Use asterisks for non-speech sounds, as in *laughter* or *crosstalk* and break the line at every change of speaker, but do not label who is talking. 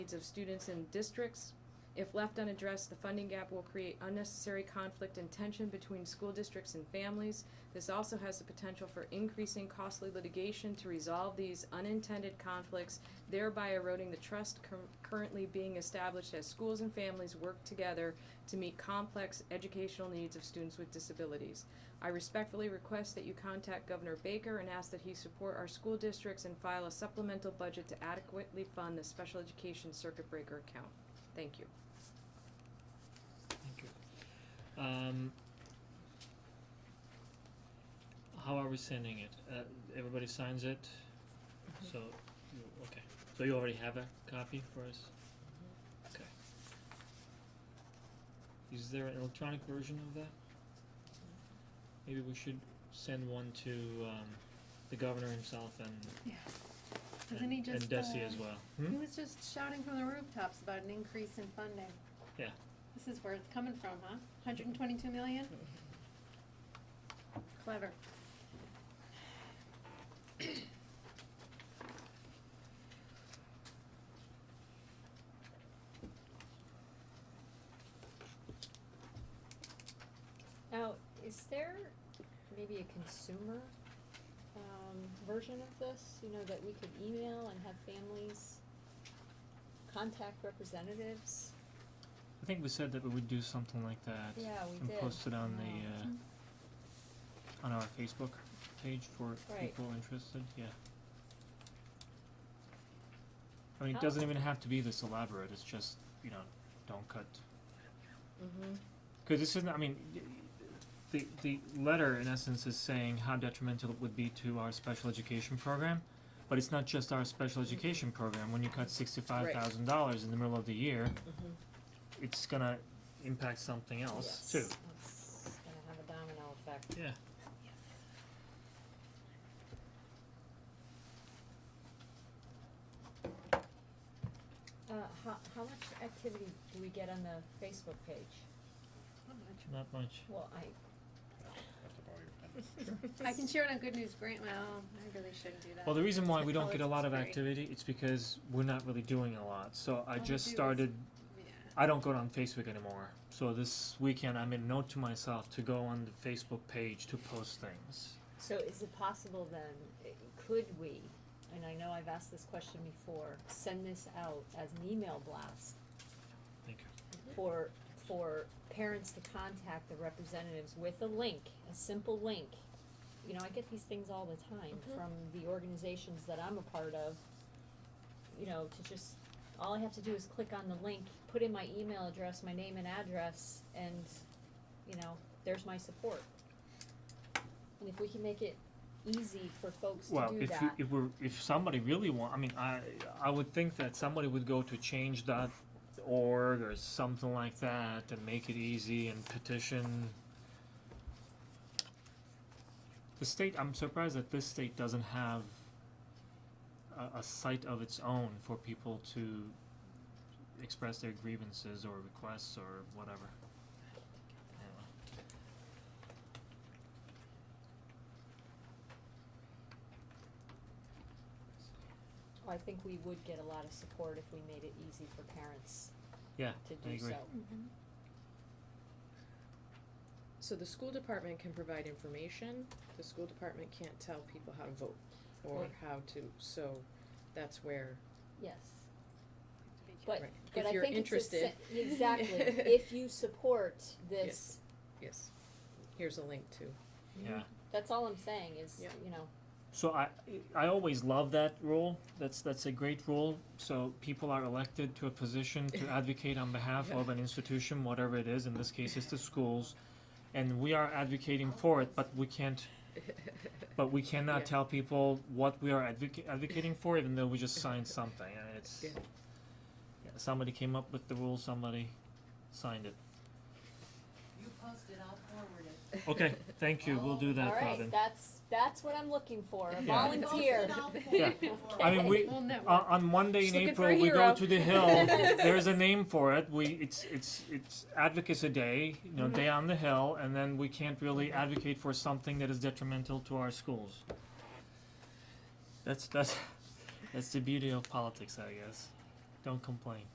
needs of students in districts. If left unaddressed, the funding gap will create unnecessary conflict and tension between school districts and families. This also has the potential for increasing costly litigation to resolve these unintended conflicts, thereby eroding the trust cur- currently being established as schools and families work together to meet complex educational needs of students with disabilities. I respectfully request that you contact Governor Baker and ask that he support our school districts and file a supplemental budget to adequately fund the special education circuit breaker account. Thank you.
Thank you. Um, how are we sending it? Uh, everybody signs it?
Mm-hmm.
So, you, okay, so you already have a copy for us? Okay. Is there an electronic version of that? Maybe we should send one to, um, the governor himself and,
Doesn't he
and, and
just,
Desi
uh,
as well. Hmm?
He was just shouting from the rooftops about an increase in funding.
Yeah.
This is where it's coming from, huh? Hundred and twenty-two million? Clever.
Now, is there maybe a consumer um, version of this, you know, that we could email and have families contact representatives?
I think we said that we would do something like that.
Yeah, we
and
did.
post it on
Yeah.
the
Hmm.
uh on our Facebook page for
Right.
people interested, yeah. I mean, it
How-
doesn't even have to be this elaborate, it's just, you know, don't cut,
Mm-hmm.
cause this isn't, I mean, y- the the letter in essence is saying how detrimental it would be to our special education program, but it's not just our special
Mm-hmm.
education program, when you cut sixty five thousand dollars in the middle of the year,
mm-hmm.
it's gonna impact something else too.
Yes, it's gonna have a domino effect.
Yeah.
Uh, how, how much activity do we get on the Facebook page?
Not much.
Not much.
Well, I,
*laughs* I can share it on Good News Grant, well, I really shouldn't do that.
Well, the reason why we don't get a lot of
Politics,
activity, it's because we're not really doing a lot, so I
All we
just
do is-
started,
Yeah,
I don't go on Facebook anymore. So this weekend, I made a note to myself to go on the Facebook page to post things.
so is it possible then, i- could we, and I know I've asked this question before, send this out as an email blast
Thank you.
for, for parents to contact the representatives with a link, a simple link. You know, I get these things all the time from the organizations that I'm a part of. You know, to just, all I have to do is click on the link, put in my email address, my name and address, and, you know, there's my support. And if we can make it easy for folks to do that.
Well, if you, if we're, if somebody really want, I mean, I, I would think that somebody would go to change.org or something like that and make it easy and petition. The state, I'm surprised that this state doesn't have a, a site of its own for people to express their grievances or requests or whatever. Anyway.
I think we would get a lot of support if we made it easy for parents
Yeah,
to
I
do so.
agree.
Mm-hmm.
So the school department can provide information, the school department can't tell people how to vote or
Right.
how to, so that's where,
Yes,
to be
but,
Right.
but
If
I
you're
think it's a se-
interested. *laughs*
exactly, if you support this,
yes, here's a link to. *laughs*
Yeah.
that's all I'm saying is,
Yeah.
you know,
So I I always love that rule. That's that's a great rule. So people are elected to a position to advocate on behalf of an institution, whatever it is. In this case, it's the schools, and we are advocating for it. But we can't. But we cannot
Yeah.
tell people what we are advoca- advocating for, even though we just signed something. And it's
Yeah.
yeah, somebody came up with the rule. Somebody signed it.
You post it, I'll forward it.
Okay, thank you. We'll do that,
all right,
Robin.
that's, that's what I'm looking for, a
Yeah.
You post
volunteer.
it, I'll forward
Yeah.
it.
I mean, we, uh,
We'll never.
on, on Monday in
Just looking for a
April, we go
hero. *laughs*
to the hill. There's a name for it. We it's it's it's advocacy day, you know,
Mm-hmm.
day on the hill, and then we can't really advocate for something that is detrimental to our schools. That's that's that's the beauty of politics, I guess. don't complain.